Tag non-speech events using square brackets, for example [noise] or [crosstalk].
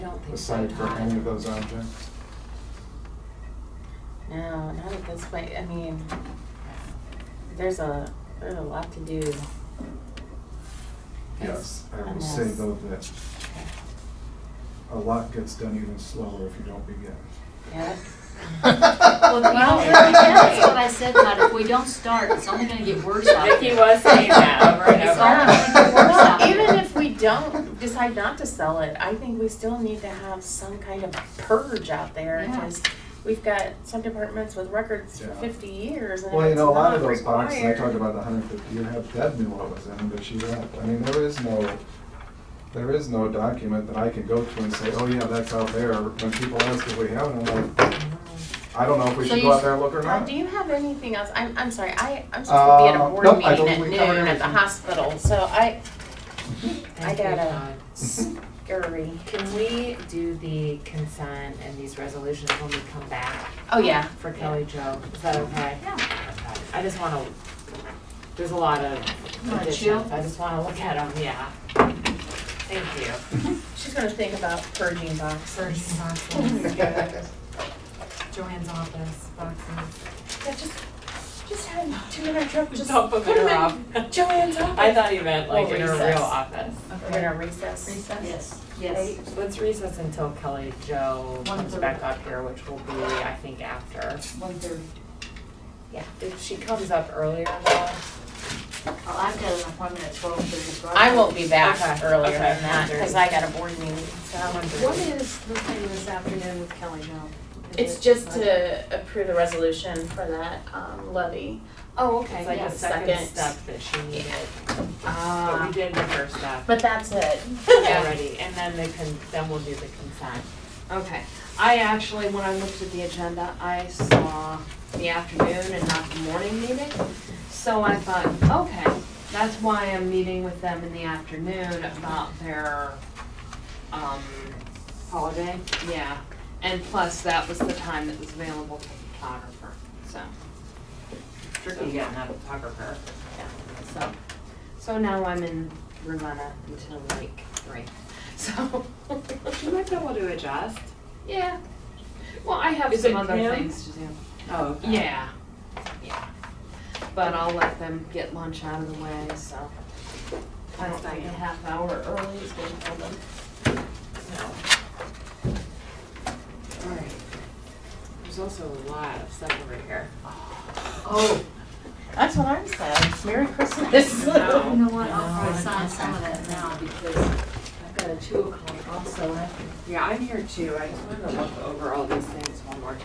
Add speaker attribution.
Speaker 1: don't think so,
Speaker 2: aside for any of
Speaker 1: Todd.
Speaker 2: those objects?
Speaker 1: No, not at this point, I mean, there's a, there's a lot to do.
Speaker 2: Yes, I
Speaker 1: on
Speaker 2: will say
Speaker 1: this.
Speaker 2: though that a lot gets done even slower if you don't begin.
Speaker 1: Yeah,
Speaker 3: Well, you know,
Speaker 1: [laughs]
Speaker 3: really, that's what I said, Todd, if we don't start, it's only gonna get worse out
Speaker 4: Vicky
Speaker 3: there.
Speaker 4: was saying that over and
Speaker 3: It's
Speaker 4: over.
Speaker 3: all
Speaker 2: [laughs]
Speaker 3: gonna get worse out
Speaker 1: Well,
Speaker 3: there.
Speaker 1: even if we don't decide not to sell it, I think we still need to have some kind of purge out there.
Speaker 3: Yeah.
Speaker 1: Because we've got some departments with records for
Speaker 2: Yeah.
Speaker 1: fifty years and
Speaker 2: Well, you
Speaker 1: it's
Speaker 2: know, a lot
Speaker 1: not
Speaker 2: of those boxes, I talked
Speaker 1: required.
Speaker 2: about the hundred fifty, you have, Deb knew what was in them, but she left. I mean, there is no, there is no document that I can go to and say, oh yeah, that's out there. When people ask if we have it, I'm like, I don't know if we
Speaker 3: So
Speaker 2: should
Speaker 3: you
Speaker 2: go out
Speaker 3: s-
Speaker 2: there and look or
Speaker 1: Todd,
Speaker 2: not.
Speaker 1: Uh, do you have anything else? I'm, I'm sorry, I, I'm supposed to be at a
Speaker 2: Uh,
Speaker 1: board
Speaker 2: nope, I
Speaker 1: meeting at
Speaker 2: totally covered
Speaker 1: noon at the
Speaker 2: everything.
Speaker 1: hospital, so I, I
Speaker 4: Thank you,
Speaker 1: gotta
Speaker 4: Todd.
Speaker 1: scurry.
Speaker 4: Can we do the consent and these resolutions when we come back
Speaker 1: Oh, yeah.
Speaker 4: for Kelly Jo? Is that okay?
Speaker 3: Yeah,
Speaker 4: I just wanna, there's a lot of
Speaker 3: wanna
Speaker 4: additions,
Speaker 3: chill?
Speaker 4: I just wanna look at them, yeah. Thank you.
Speaker 1: She's gonna think about purging boxes.
Speaker 4: Surgery boxes, Joanne's office boxes.
Speaker 1: Yeah, just, just had two in our truck, just
Speaker 4: Don't put
Speaker 1: put 'em
Speaker 4: her
Speaker 1: in
Speaker 4: off.
Speaker 1: Joanne's
Speaker 4: I
Speaker 1: office.
Speaker 4: thought you meant like
Speaker 1: We'll
Speaker 4: in her
Speaker 1: recess.
Speaker 4: real office.
Speaker 1: We're gonna recess.
Speaker 3: yes,
Speaker 1: Right?
Speaker 3: yes.
Speaker 4: Let's recess until Kelly Jo
Speaker 3: One
Speaker 4: comes
Speaker 3: thirty.
Speaker 4: back up here, which will be, I think, after.
Speaker 3: One thirty.
Speaker 4: Yeah. If she comes up earlier though.
Speaker 3: Well, Oh, I've got an appointment at twelve thirty, so I.
Speaker 1: I won't be back
Speaker 4: Okay,
Speaker 1: earlier
Speaker 4: okay.
Speaker 1: than that because I got a board meeting. So
Speaker 3: What is the thing this afternoon with Kelly Jones?
Speaker 5: It's just to approve the resolution for that um, levy.
Speaker 3: Oh, okay,
Speaker 4: It's like
Speaker 3: yeah.
Speaker 4: a second
Speaker 5: Second.
Speaker 4: step that she needed, but we
Speaker 3: Ah,
Speaker 4: did the first step
Speaker 5: But that's it.
Speaker 1: [laughs]
Speaker 4: already, and then the con, then we'll do the consent.
Speaker 3: okay. I actually, when I looked at the agenda, I saw the afternoon and not the morning meeting. So I thought, okay, that's why I'm meeting with them in the afternoon about their, um, holiday, yeah. And plus, that was the time that was available to the photographer, so.
Speaker 4: Tricky getting that photographer.
Speaker 3: So, so now I'm in Ravenna until like three.
Speaker 1: [laughs]
Speaker 3: So,
Speaker 4: She might be able to adjust.
Speaker 3: yeah. Well, I have
Speaker 4: Is
Speaker 3: some
Speaker 4: it
Speaker 3: other
Speaker 4: Pam?
Speaker 3: things to do.
Speaker 4: Oh,
Speaker 3: Yeah, yeah. But I'll let them get lunch out of the way, so. I don't think a half hour early is gonna kill them.
Speaker 4: Alright. There's also a lot of stuff over here.
Speaker 3: Oh,
Speaker 1: that's what I'm saying. Merry
Speaker 3: [laughs]
Speaker 1: Christmas. [laughs]
Speaker 3: you know what, I'll probably sign some of that now because I've got a two o'clock also.
Speaker 4: Yeah, I'm here too, I just wanted to look over all